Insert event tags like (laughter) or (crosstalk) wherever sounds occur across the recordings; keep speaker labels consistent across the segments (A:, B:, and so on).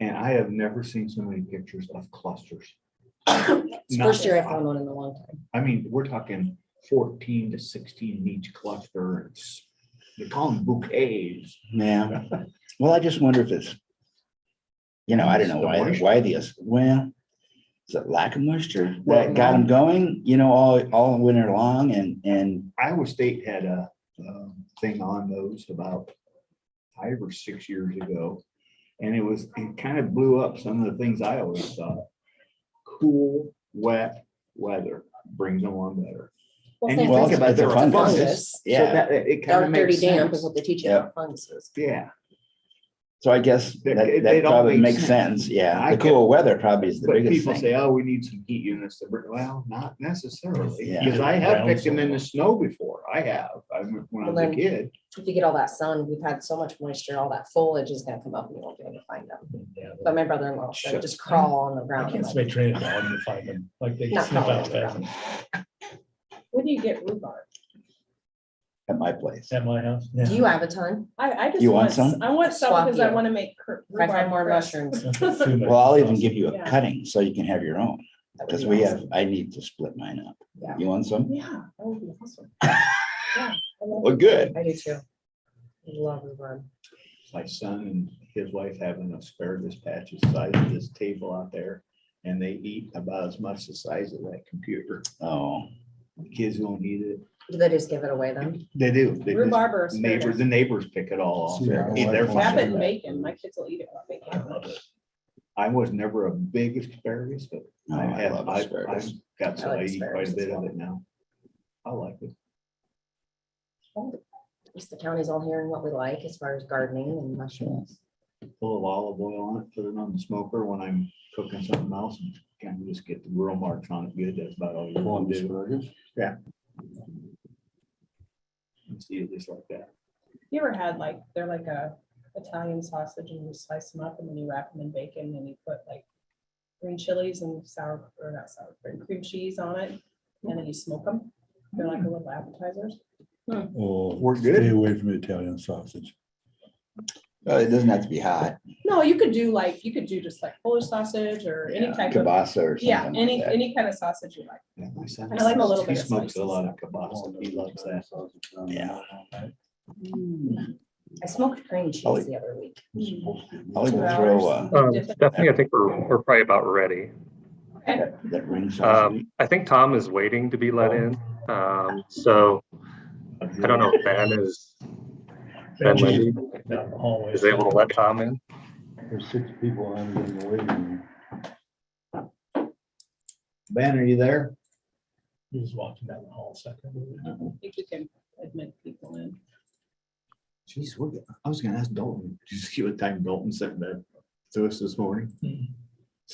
A: And I have never seen so many pictures of clusters.
B: It's the First year I found one in a long time.
A: I mean, we're talking fourteen to sixteen in each cluster. It's, they call them bouquets.
C: Yeah, well, I just wonder if it's, you know, I don't know
A: The
C: why,
A: moisture.
C: why this, well, is it lack of moisture
A: Well,
C: that got them going, you know, all, all winter long and, and,
A: Iowa State had a um, thing on those about five or six years ago. And it was, it kind of blew up some of the things I always thought. Cool, wet weather brings them on better. And you
C: Well,
A: think
C: it's-
A: about
C: it's a
A: their
C: fungus.
A: fungus. So
C: yeah.
A: that, it kind of
B: Dark dirty
A: makes
B: damp
A: sense.
B: is what they teach you
C: Yeah.
B: about funguses.
A: Yeah,
C: So I guess
A: That-
C: that,
A: it-
C: that
A: it all
C: probably
A: makes
C: makes sense, yeah.
A: I
C: The
A: get-
C: cool weather probably is the
A: but
C: biggest
A: people
C: thing.
A: say, oh, we need some heat units to bring, well, not necessarily,
C: Yeah.
A: because I have picked them in the
D: Grounds.
A: snow before, I have, I, when I
B: Well,
A: was a
B: then-
A: kid.
B: If you get all that sun, we've had so much moisture, all that foliage is gonna come up and you won't be able to find them.
D: Yeah,
B: But my brother-in-law
D: Sure.
B: said, just crawl on the
D: I
B: ground. I'm
D: can't
B: like,
D: stay trained dog to find them, like they
B: Not
D: sniff out
B: probably.
D: fast
E: Where do you get rhubarb?
C: At my place.
D: at my house.
B: Do you have a ton?
E: I, I just
C: You want
E: want,
C: some?
E: s- I want some
B: Swap
E: because I
B: you.
E: want to make cur-
B: If I find
E: rhubarb
B: more
E: crisp.
B: mushrooms.
C: Well, I'll even give you a
E: Yeah.
C: cutting so you can have your own,
B: that would
C: because
B: be
C: we
B: awesome.
C: have, I need to split mine up.
B: Yeah.
C: You want some?
E: Yeah, that would be awesome.
C: Well, good.
B: I do too. I Love rhubarb.
A: My son and his wife have an asparagus patch the size of this table out there, and they eat about as much the size of that computer.
C: Oh,
A: Kids don't eat it,
B: Do they just give it away then?
A: they do, they just,
E: Rhubarb or
A: neighbors,
E: asparagus.
A: the neighbors pick it all off.
C: Yeah.
A: Eat their
E: Wrap it
A: fun.
E: in bacon. My kids will eat it. with
D: I
E: bacon.
D: love it.
A: I was never a big asparagus, but
C: no,
A: I
C: I
A: have,
C: love
A: I've,
C: asparagus.
A: I've got, some-
B: I like
A: I eat quite a
B: asparagus as
A: bit of
B: well.
A: it now. I like it.
B: At least the county's all hearing what we like as far as gardening and mushrooms.
A: full of olive oil on it, put it on the smoker when I'm cooking something else, and kind of just get the grill marks on it good, that's about all you want to do. And See it just like that.
E: You ever had like, they're like a Italian sausage and you slice them up and then you wrap them in bacon and you put like green chilies and sour, or not sour, but cream cheese on it. And then you smoke them. They're like little appetizers.
F: Oh,
A: We're
F: stay
A: good.
F: away from Italian sausage.
C: Well, Oh, it doesn't have to be hot.
E: No, you could do like, you could do just like Polish sausage or any
C: Yeah,
E: type of,
C: Kielbasa or
E: yeah,
C: something
E: any,
C: like that.
E: any kind of sausage you like.
A: Yeah, my son-
E: I like a little
A: He
E: bit of
A: smokes a
E: spicy
A: lot of kielbasa, he loves that.
C: Yeah.
B: I smoked cream
C: Probably-
B: cheese the other week.
E: Mm-hmm.
C: I'll
E: Two
C: even throw, uh,
E: hours.
G: Um, Stephanie, I think we're, we're probably about ready.
E: Okay.
C: that ring
A: Uh,
C: sausage.
G: Um, I think Tom is waiting to be let in. Um, so I don't know if Ben is, Ben Lindy
D: Down the hallway.
G: is able to let Tom in.
F: There's six people on it in the waiting room.
A: Ben, are you there?
D: He was walking down the hall a second.
E: I think you can admit people in.
A: Jeez, we're good. I was gonna ask Dalton, (laughs) did you see what time Dalton sent that to us this morning?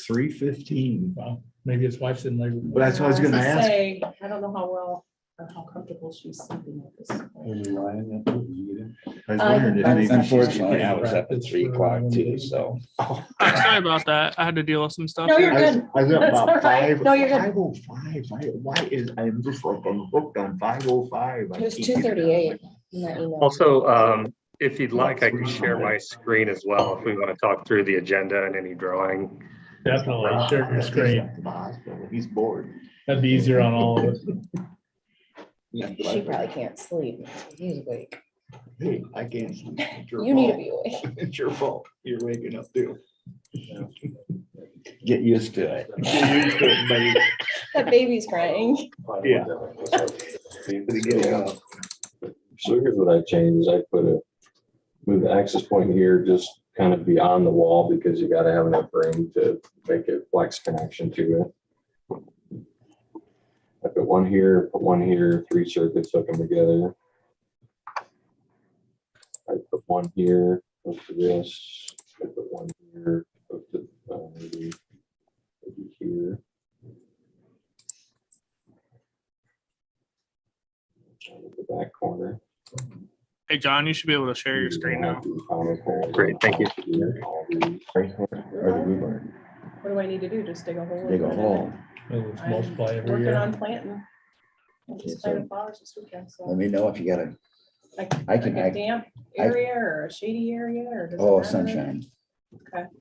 A: Three fifteen.
D: Wow, maybe his wife's in labor.
A: But that's what I was gonna
E: As I
A: ask.
E: say, I don't know how well, or how comfortable she's sleeping at this. point.
F: There's a lion up there, did you get it?
A: I was
B: I-
A: wondering
E: Uh,
A: if maybe she's-
C: Unfortunately, I was up at three o'clock too, so.
H: Uh, sorry about that. I had to deal with some stuff.
E: No,
H: here.
E: you're
A: I was-
E: good.
A: I was up
E: That's all
A: about
E: right.
A: five.
E: No, you're good.
A: Five oh five, why, why is, I'm just like, I'm hooked on five oh five.
B: It was two thirty-eight in that email.
G: Also, um, if you'd like, I can share my screen as well if we want to talk through the agenda and any drawing.
D: Definitely, share your screen.
A: He's bored.
D: That'd be easier on all of us.
B: She probably can't sleep. He's awake.
A: Hey, I can't. sleep. It's your
B: You need to
A: fault.
B: be awake.
A: It's your fault. You're waking up too.
C: Get used to it.
A: Get used to it, buddy.
B: That baby's crying.
A: Yeah. Gotta get it
I: So
A: up.
I: here's what I changed, is I put a, move the access point here, just kind of beyond the wall, because you gotta have enough room to make a flex connection to it. I put one here, put one here, three circuits, hook them together. I put one here, hook to this, I put one here, hook to, uh, maybe, maybe here. The back corner.
H: Hey, John, you should be able to share your screen now.
G: Great, thank you.
C: Or the rhubarb,
E: What do I need to do? Just dig a hole? and
C: dig
E: put
C: a
E: it in?
C: hole.
D: It's
E: I'm
D: multiply every
E: Working
D: year.
E: on planting. I
C: Okay,
E: just planted
C: so-
E: flowers this weekend,
C: Let
E: so.
C: me know if you got a,
E: like-
C: I
E: like
C: can,
E: a
C: I,
E: Damp
C: I-
E: area or a shady area or? does it
C: oh,
E: matter?
C: sunshine.